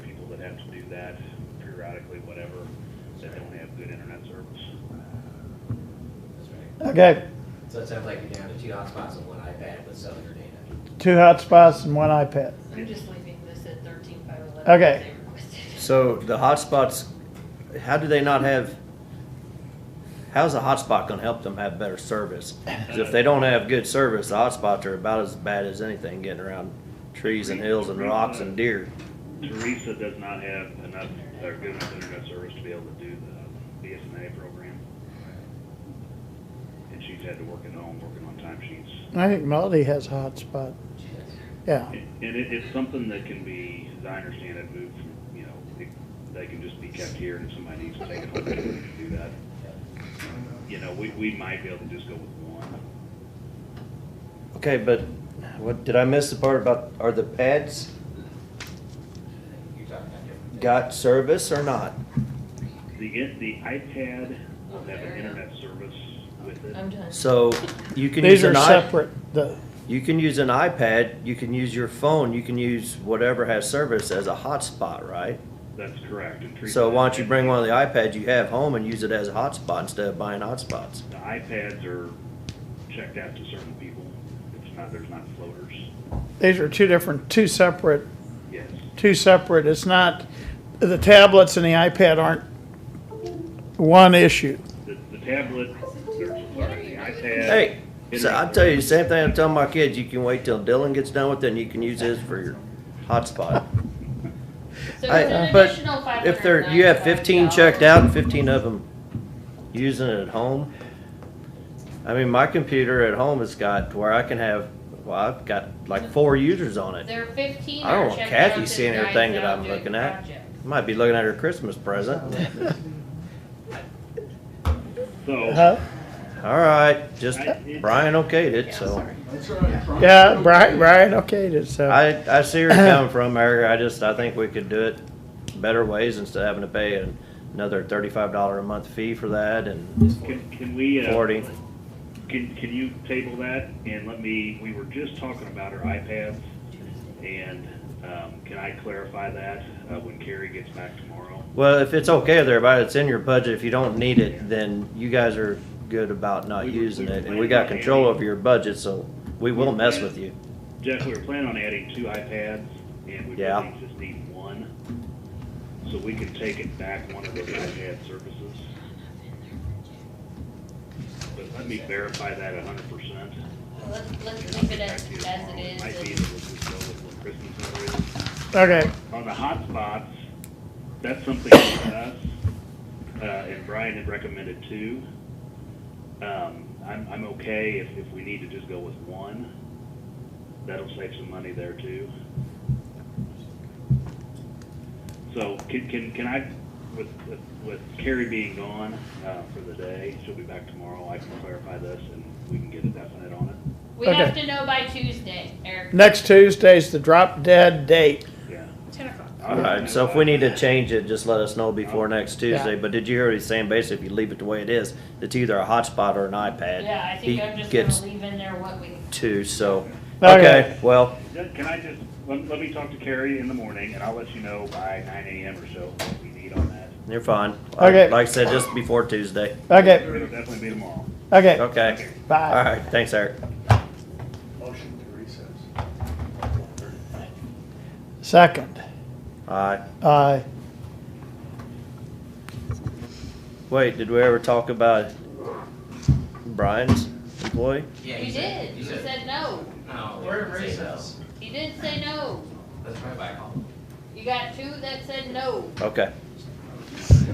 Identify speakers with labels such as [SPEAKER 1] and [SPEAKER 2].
[SPEAKER 1] have to do that periodically, whatever, that don't have good internet service.
[SPEAKER 2] That's right.
[SPEAKER 3] Okay,
[SPEAKER 2] So it sounds like you're down to two hotspots and one iPad with cellular data.
[SPEAKER 3] two hotspots and one iPad.
[SPEAKER 4] I'm just leaving this at thirteen five eleven.
[SPEAKER 3] Okay.
[SPEAKER 5] So the hotspots, how do they not have, how's a hotspot gonna help them have better service? 'Cause if they don't have good service, the hotspots are about as bad as anything, getting around trees and hills and rocks and deer.
[SPEAKER 1] Teresa does not have enough, or good enough internet service to be able to do the BSNA program. And she's had to work at home, working on timesheets.
[SPEAKER 3] I think Melody has a hotspot. Yeah,
[SPEAKER 1] And it, it's something that can be, as I understand it, moved from, you know, it, they can just be kept here and if somebody needs to take it home, they can do that. You know, we, we might be able to just go with one.
[SPEAKER 5] Okay, but what, did I miss the part about, are the pads
[SPEAKER 2] You're talking about different.
[SPEAKER 5] got service or not?
[SPEAKER 1] The, in- the iPad will have an internet service with it.
[SPEAKER 4] I'm done.
[SPEAKER 5] So you can use
[SPEAKER 3] these are
[SPEAKER 5] an iPad.
[SPEAKER 3] separate, the,
[SPEAKER 5] You can use an iPad, you can use your phone, you can use whatever has service as a hotspot, right?
[SPEAKER 1] That's correct. And Teresa-
[SPEAKER 5] So why don't you bring one of the iPads you have home and use it as a hotspot instead of buying hotspots?
[SPEAKER 1] The iPads are checked out to certain people. It's not, there's not floaters.
[SPEAKER 3] these are two different, two separate,
[SPEAKER 1] Yes.
[SPEAKER 3] two separate, it's not, the tablets and the iPad aren't one issue.
[SPEAKER 1] The, the tablet, there's, sorry, the iPad.
[SPEAKER 5] Hey, so I
[SPEAKER 1] internet
[SPEAKER 5] tell you the same thing I'm telling my kids, you can wait till Dylan gets done with it and you can use his for your hotspot.
[SPEAKER 4] So
[SPEAKER 5] I-
[SPEAKER 4] it's an
[SPEAKER 5] but
[SPEAKER 4] additional five
[SPEAKER 5] If there, you have fifteen checked out and fifteen of them using it at home. I mean, my computer at home has got to where I can have, well, I've got like four users on it.
[SPEAKER 4] There are fifteen.
[SPEAKER 5] I don't
[SPEAKER 4] are
[SPEAKER 5] want
[SPEAKER 4] checked
[SPEAKER 5] Kathy
[SPEAKER 4] out
[SPEAKER 5] seeing
[SPEAKER 4] that
[SPEAKER 5] everything
[SPEAKER 4] guys
[SPEAKER 5] that
[SPEAKER 4] out
[SPEAKER 5] I'm
[SPEAKER 4] doing
[SPEAKER 5] looking at.
[SPEAKER 4] projects.
[SPEAKER 5] Might be looking at her Christmas present.
[SPEAKER 1] So,
[SPEAKER 3] Huh?
[SPEAKER 5] All right, just Brian okayed it,
[SPEAKER 4] Yeah,
[SPEAKER 5] so.
[SPEAKER 4] sorry.
[SPEAKER 3] Yeah, Brian, Brian, okay, it's, uh,
[SPEAKER 5] I, I see where you're coming from, Eric. I just, I think we could do it better ways instead of having to pay an- another thirty-five dollar a month fee for that and
[SPEAKER 1] can, can we, uh,
[SPEAKER 5] forty.
[SPEAKER 1] Can, can you table that and let me, we were just talking about our iPads and, um, can I clarify that, uh, when Carrie gets back tomorrow?
[SPEAKER 5] Well, if it's okay with everybody, it's in your budget. If you don't need it, then you guys are good about not
[SPEAKER 1] We were-
[SPEAKER 5] using
[SPEAKER 1] we were
[SPEAKER 5] it. And we got
[SPEAKER 1] planning on
[SPEAKER 5] control
[SPEAKER 1] adding-
[SPEAKER 5] over your budget, so we will mess with you.
[SPEAKER 1] Jeff, we were planning on adding two iPads and we
[SPEAKER 5] Yeah.
[SPEAKER 1] really just need one. So we can take it back one of those iPad services. But let me verify that a hundred percent.
[SPEAKER 4] Let's, let's leave it as, as it is.
[SPEAKER 1] Might be
[SPEAKER 4] and-
[SPEAKER 1] that we'll just go with what Kristen's already.
[SPEAKER 3] okay,
[SPEAKER 1] On the hotspots, that's something with us, uh, and Brian had recommended two. Um, I'm, I'm okay if, if we need to just go with one. That'll save some money there too. So can, can, can I, with, with- with Carrie being gone, uh, for the day, she'll be back tomorrow, I can clarify this and we can get a definite on it.
[SPEAKER 4] We have
[SPEAKER 3] Okay.
[SPEAKER 4] to know by Tuesday, Eric.
[SPEAKER 3] next Tuesday's the drop dead date.
[SPEAKER 1] Yeah.
[SPEAKER 4] Ten o'clock.
[SPEAKER 5] All right, so if we need to change it, just let us know before next Tuesday.
[SPEAKER 3] Yeah.
[SPEAKER 5] But did you hear what he's saying? Basically, if you leave it the way it is, it's either a hotspot or an iPad.
[SPEAKER 4] Yeah, I think
[SPEAKER 5] He
[SPEAKER 4] I'm just
[SPEAKER 5] gets
[SPEAKER 4] gonna leave in there what we.
[SPEAKER 5] two, so,
[SPEAKER 3] Okay.
[SPEAKER 5] okay, well,
[SPEAKER 1] Just- Can I just, let, let me talk to Carrie in the morning, and I'll let you know by nine AM or so what we need on that.
[SPEAKER 5] you're fine.
[SPEAKER 3] Okay.
[SPEAKER 5] Like I said, just before Tuesday.
[SPEAKER 3] Okay,
[SPEAKER 1] It'll definitely be tomorrow.
[SPEAKER 3] okay,
[SPEAKER 5] Okay, all
[SPEAKER 3] bye.
[SPEAKER 5] right, thanks, Eric.
[SPEAKER 6] Motion to recess.
[SPEAKER 3] Second,
[SPEAKER 5] All right,
[SPEAKER 3] aye.
[SPEAKER 5] wait, did we ever talk about Brian's employee?
[SPEAKER 2] Yeah,
[SPEAKER 4] You did,
[SPEAKER 2] You
[SPEAKER 4] you
[SPEAKER 2] said,
[SPEAKER 4] said no.
[SPEAKER 2] no.
[SPEAKER 6] We're in
[SPEAKER 2] you said
[SPEAKER 6] recess.
[SPEAKER 2] no.
[SPEAKER 4] You did say no.
[SPEAKER 2] That's my bike home.
[SPEAKER 4] You got two that said no.
[SPEAKER 5] Okay,